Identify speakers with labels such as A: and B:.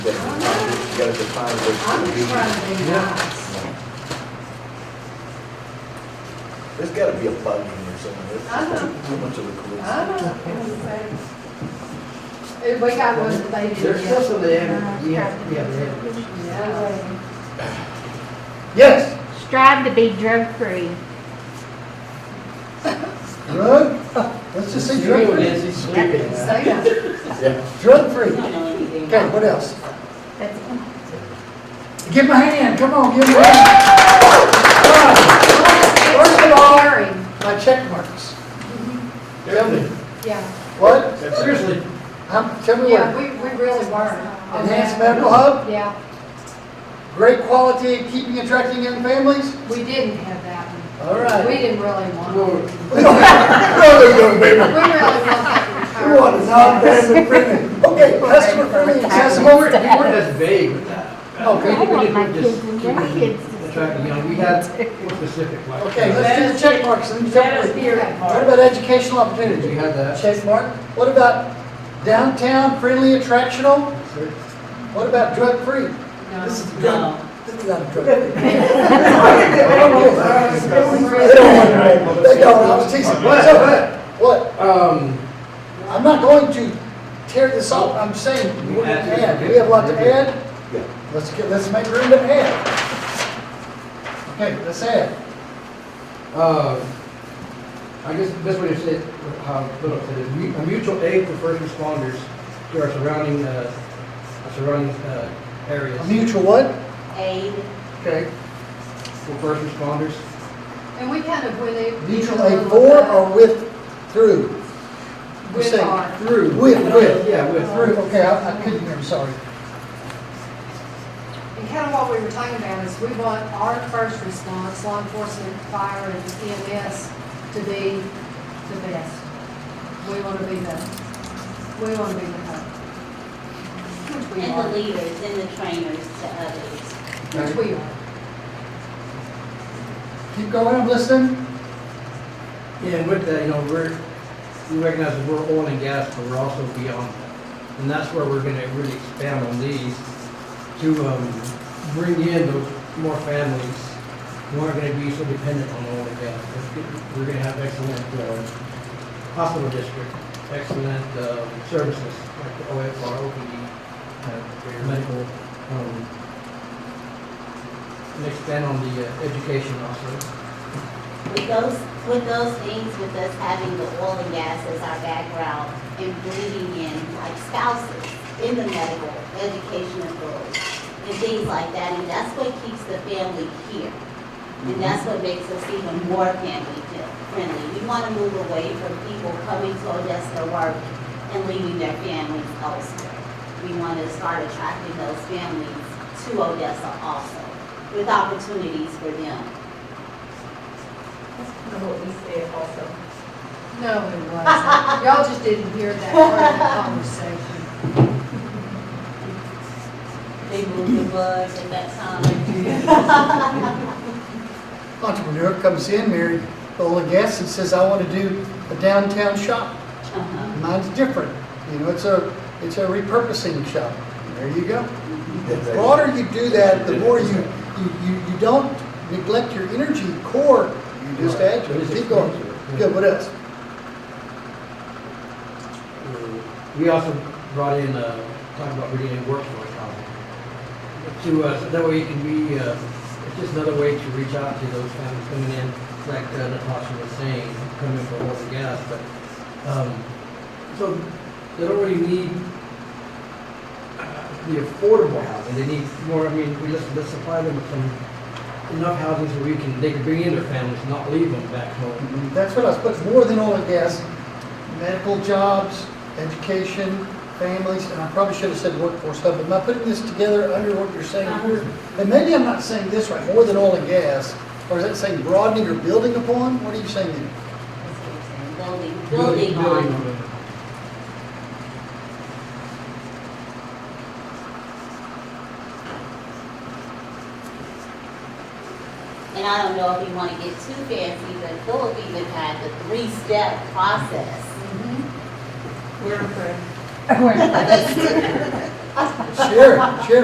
A: gotta define
B: I'm
A: what's
B: just trying
A: convenient.
B: to be nice.
A: There's gotta be a bug in there somewhere,
B: I
A: there's
B: know.
A: too- too much of a coincidence.
B: I don't know, it was a- If we got one that they did.
C: There's still some of
B: Uh,
C: them, yeah,
D: Strive
C: yeah, yeah.
B: Yeah.
C: Yes,
D: Strive to be drug-free.
E: Drug, let's just say drug
C: Screw it,
E: free.
C: Nancy, screw it.
B: Say that.
A: Yeah,
E: Drug free. Okay, what else?
D: That's
E: Give him a hand, come on, give him a hand. Ah, First of all, my check marks. Tell me,
B: Yeah,
E: what?
C: seriously,
E: Um, Tell me
B: yeah,
E: what?
B: we, we really were.
E: Enhanced medical hub,
B: Yeah,
E: great quality, keeping attracting young families?
B: we didn't have that one.
E: All right.
B: We didn't really want. it.
C: Lord,
B: We really want that
E: We want a
B: retirement.
E: non-family friendly, okay, customer friendly, accessible.
C: we weren't as vague with that.
E: Okay.
D: I want my
C: We didn't
D: kids and
C: just-
D: grandkids to-
C: Attract, you know, we had more specific like.
E: Okay, let's do the check marks and then
F: Let
E: tell
F: us
E: me.
F: hear it,
E: What
F: Mark.
E: about educational
C: We
E: opportunities?
C: had that.
E: Check mark. What about downtown friendly attractional? What about drug free?
B: No.
E: This is
F: No.
E: drug, this is not a drug. free. They
B: Really.
E: don't want to, they don't, I was teasing. What's up, man? What?
C: Um,
E: I'm not going to tear this off, I'm saying, we're gonna add, we have a lot to add.
A: yeah.
E: Let's get, let's make room to add. Okay, let's add.
C: uh, I guess the best way to say it, how Philip said it, mu- a mutual aid for first responders to our surrounding, uh, our surrounding, uh, areas.
E: A mutual what?
F: Aid.
C: Okay. For first responders.
B: And we kind of went. in-
E: Mutual aid for or with, through? We're
B: With
E: saying
B: or.
E: Through, with, with.
C: Yeah, with.
E: Through, okay, I I couldn't hear, I'm sorry.
B: And kind of what we were talking about is we want our first response, law enforcement, fire, and EMS to be the best. We want to be the, we want to be the hub. Which we
F: And the
B: are,
F: leaders and the trainers to others.
B: which we are.
E: Keep going, I'm listening.
C: Yeah, and with that, you know, we're, we recognize that we're oil and gas, but we're also beyond that. And that's where we're gonna really expand on these to, um, bring in those more families who aren't gonna be so dependent on oil and gas. We're gonna- We're gonna have excellent, uh, hospital district, excellent, uh, services, like the OFR, OPD, uh, your medical, um, and expand on the uh, education also.
F: With those, with those things, with us having the oil and gas as our background and bringing in like spouses in the medical, educational field and things like that, and that's what keeps the family here. And that's what makes us even more family feel- friendly. We want to move away from people coming to Odessa to work and leaving their families elsewhere. We want to start attracting those families to Odessa also, with opportunities for them.
B: No, it wasn't. Y'all just didn't hear that part of the conversation.
F: They moved the bus at that time.
E: Entrepreneur comes in, married oil and gas, and says, I want to do a downtown shop.
F: Uh-huh.
E: Mine's different, you know, it's a, it's a repurposing shop. There you go. The broader you do that, the more you, you, you you don't neglect your energy core, you just add to it. Keep going. Good, what else?
C: We also brought in, uh, talking about bringing in workforce housing. To, uh, so that way you can be, uh, it's just another way to reach out to those families coming in, like uh, Natasha was saying, coming for oil and gas, but, um, so they don't really need uh, the affordable housing, they need more, I mean, we just, let's supply them with some, enough housing so we can, they can bring in their families, not leave them back home.
E: That's what I was putting, more than oil and gas, medical jobs, education, families, and I probably should have said workforce hub. Am I putting this together under what you're saying here? And maybe I'm not saying this right, more than oil and gas, or is that saying broadening or building upon? What are you saying there?
F: That's what I'm saying. Building, building
C: Building
F: on. And I don't know if you want to get too fancy, but Philip even had the three-step process.
B: Mm-hmm.
E: Share, share.